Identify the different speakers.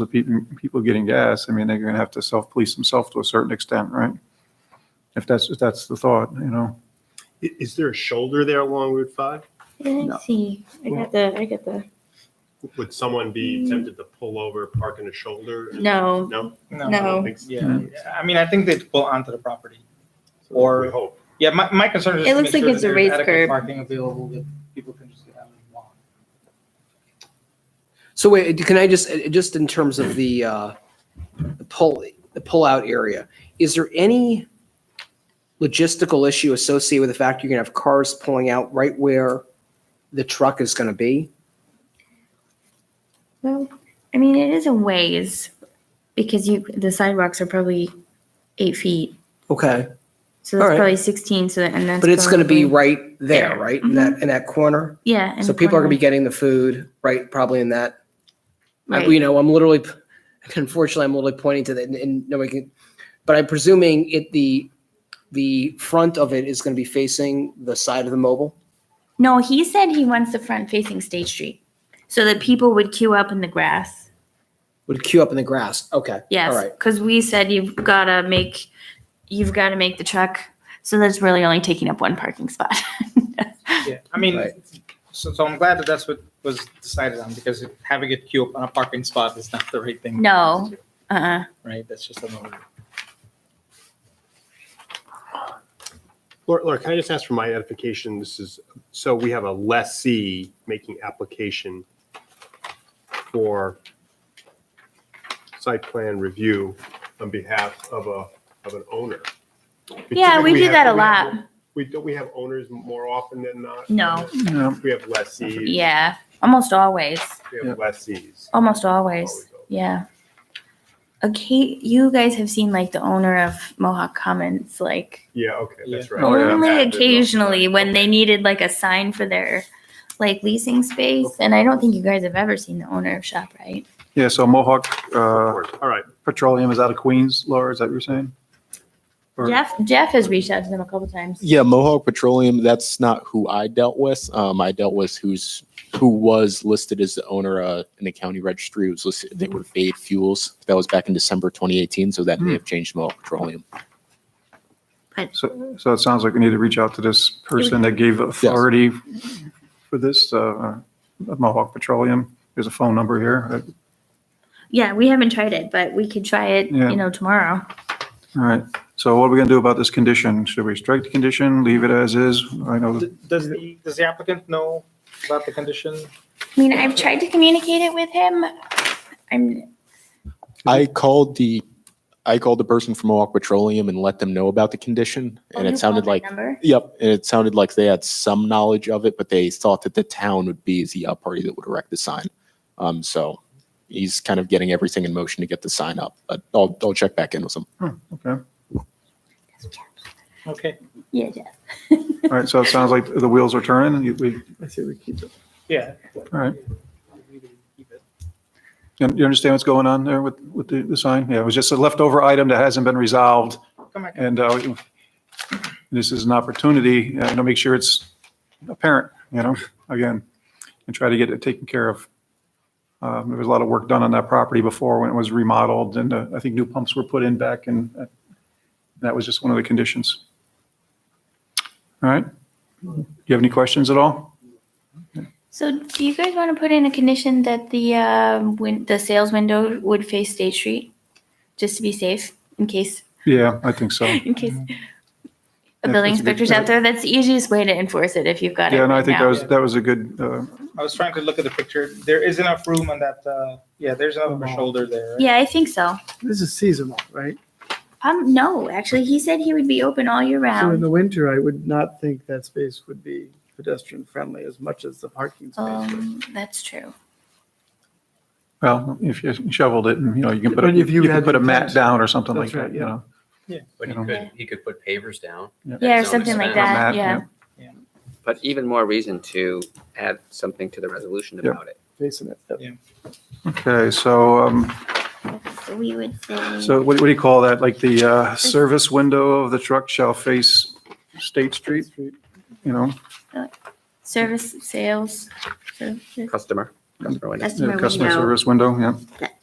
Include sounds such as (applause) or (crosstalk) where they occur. Speaker 1: of people, people getting gas, I mean, they're gonna have to self-police themselves to a certain extent, right? If that's, if that's the thought, you know?
Speaker 2: I- Is there a shoulder there along Route 5?
Speaker 1: No.
Speaker 3: Let's see. I got the, I got the,
Speaker 2: Would someone be tempted to pull over, park in a shoulder? and-
Speaker 3: Mm. no,
Speaker 2: No? I
Speaker 3: No.
Speaker 2: don't think so.
Speaker 4: Yeah, I mean, I think they'd pull onto the property.
Speaker 2: We
Speaker 4: Or,
Speaker 2: hope.
Speaker 4: yeah, my, my concern is.
Speaker 3: It
Speaker 4: to
Speaker 3: looks like
Speaker 4: make sure
Speaker 3: it's
Speaker 4: that
Speaker 3: a
Speaker 4: there's
Speaker 3: raised
Speaker 4: adequate
Speaker 3: curb.
Speaker 4: Parking available that people can just get out and walk.
Speaker 5: So wait, can I just, uh, just in terms of the, uh, the pull, the pullout area, is there any logistical issue associated with the fact you're gonna have cars pulling out right where the truck is gonna be?
Speaker 3: well, I mean, it is a ways because you, the sidewalks are probably eight feet.
Speaker 5: Okay,
Speaker 3: So that's
Speaker 5: Alright.
Speaker 3: probably 16. So, and that's.
Speaker 5: but it's gonna be
Speaker 3: probably-
Speaker 5: right there,
Speaker 3: there.
Speaker 5: right, in that, in that corner?
Speaker 3: Yeah. and
Speaker 5: So people are gonna be
Speaker 3: corner.
Speaker 5: getting the food, right, probably in that, I-
Speaker 3: Right.
Speaker 5: you know, I'm literally, (laughs) unfortunately, I'm literally pointing to that and- and nobody can, but I'm presuming it, the, the front of it is gonna be facing the side of the mobile?
Speaker 3: No, he said he wants the front facing State Street so that people would queue up in the grass.
Speaker 5: Would queue up in the grass. Okay. All
Speaker 3: Yes.
Speaker 5: right.
Speaker 3: Because we said you've got to make, you've got to make the truck. So that's really only taking up one parking spot. (laughs)
Speaker 4: Yeah, I mean,
Speaker 5: Right.
Speaker 4: so, so I'm glad that that's what was decided on, because having it queue up on a parking spot is not the right thing.
Speaker 3: No. Uh-uh.
Speaker 4: Right, that's just another.
Speaker 2: Laura, Laura, can I just ask for my edification? This is, so we have a lessee making application for site plan review on behalf of a, of an owner.
Speaker 3: Yeah, we
Speaker 2: typically
Speaker 3: do
Speaker 2: have-
Speaker 3: that a
Speaker 2: we have-
Speaker 3: lot.
Speaker 2: We, don't we have owners more often than not?
Speaker 3: No.
Speaker 1: No,
Speaker 2: We have lessees.
Speaker 3: Yeah. Almost always.
Speaker 2: We have lessees.
Speaker 3: Almost always. Yeah. Okay, you guys have seen like the owner of Mohawk Commons, like
Speaker 2: Yeah, okay, that's right.
Speaker 1: Oh, yeah.
Speaker 3: only
Speaker 2: Active,
Speaker 3: occasionally
Speaker 2: right,
Speaker 3: when they
Speaker 2: okay.
Speaker 3: needed like a sign for their like leasing space. And I don't think you guys have ever seen the owner of ShopRite.
Speaker 1: yeah, so Mohawk, uh,
Speaker 2: All right,
Speaker 1: Petroleum is out of Queens, Laura, is that what you're saying? Or-
Speaker 3: Jeff Jeff has reached out to them a couple times.
Speaker 6: Yeah, Mohawk Petroleum, that's not who I dealt with. Um, I dealt with who's, who was listed as the owner, uh, in the county registry. It was listed, they were Fade Fuels. That was back in December 2018, so that
Speaker 1: Hmm.
Speaker 6: may have changed Mohawk Petroleum.
Speaker 1: So, so it sounds like we need to reach out to this person that gave authority for this, uh, Mohawk Petroleum. There's a phone number here.
Speaker 3: Yeah, we haven't tried it, but we could try it,
Speaker 1: Yeah.
Speaker 3: you know, tomorrow.
Speaker 1: All right, so what are we gonna do about this condition? Should we strike the condition, leave it as is? I know,
Speaker 4: D- Does the, does the applicant know about the condition?
Speaker 3: I mean, I've tried to communicate it with him. I'm
Speaker 6: I called the, I called the person from Mohawk Petroleum and let them know about the condition,
Speaker 3: Oh,
Speaker 6: and
Speaker 3: you
Speaker 6: it sounded
Speaker 3: called my
Speaker 6: like,
Speaker 3: number?
Speaker 6: yep, and it sounded like they had some knowledge of it, but they thought that the town would be the uh, party that would erect the sign. Um, so he's kind of getting everything in motion to get the sign up, but I'll, I'll check back in with him.
Speaker 1: okay.
Speaker 4: Okay,
Speaker 3: Yeah, Jeff.
Speaker 1: All right, so it sounds like the wheels are turning. You- We, I say we keep it.
Speaker 4: yeah.
Speaker 1: All right. You you understand what's going on there with, with the, the sign? Yeah, it was just a leftover item that hasn't been resolved.
Speaker 4: Come back.
Speaker 1: And uh, this is an opportunity uh, to make sure it's apparent, you know, again, and try to get it taken care of. Um, There was a lot of work done on that property before when it was remodeled and uh, I think new pumps were put in back and uh, that was just one of the conditions. All right. Do you have any questions at all?
Speaker 3: So do you guys want to put in a condition that the, uh, win, the sales window would face State Street? Just to be safe in case,
Speaker 1: Yeah, I think so.
Speaker 3: in case a
Speaker 1: Yeah,
Speaker 3: building
Speaker 1: Mm-hmm. that's a good
Speaker 3: inspector's out there. That's the easiest way to enforce it if you've got it
Speaker 1: Yeah, and I
Speaker 3: right
Speaker 1: think that
Speaker 3: now.
Speaker 1: was, that was a good, uh,
Speaker 4: I was trying to look at the picture. There is enough room on that, uh, yeah, there's enough of a shoulder there. right?
Speaker 3: Yeah, I think so.
Speaker 7: This is seasonal, right?
Speaker 3: Um, no, actually, he said he would be open all year
Speaker 7: So in
Speaker 3: round.
Speaker 7: the winter, I would not think that space would be pedestrian friendly as much as the parking space. would.
Speaker 3: Um, that's true.
Speaker 1: well, if you shoveled it and, you know, you can put, a-
Speaker 7: But if you
Speaker 1: you can
Speaker 7: had
Speaker 1: put a
Speaker 7: the
Speaker 1: mat
Speaker 7: fence.
Speaker 1: down or something like
Speaker 7: That's
Speaker 1: that,
Speaker 7: right,
Speaker 1: you
Speaker 7: yeah.
Speaker 1: know?
Speaker 8: But he
Speaker 1: You know.
Speaker 8: could, he could put pavers down.
Speaker 3: Yeah, or
Speaker 8: So
Speaker 3: something like
Speaker 8: expand on
Speaker 3: that,
Speaker 1: that,
Speaker 3: yeah.
Speaker 9: but even more reason to add something to the resolution
Speaker 1: Yeah.
Speaker 9: about it.
Speaker 7: Facing it.
Speaker 1: Okay, so, um,
Speaker 3: So we would say,
Speaker 1: so what, what do you call that? Like the, uh, service window of the truck shall face State Street, you know?
Speaker 3: service, sales, service,
Speaker 9: Customer, customer window.
Speaker 3: Customer
Speaker 1: Customer
Speaker 3: window.
Speaker 1: service window, yeah.
Speaker 3: that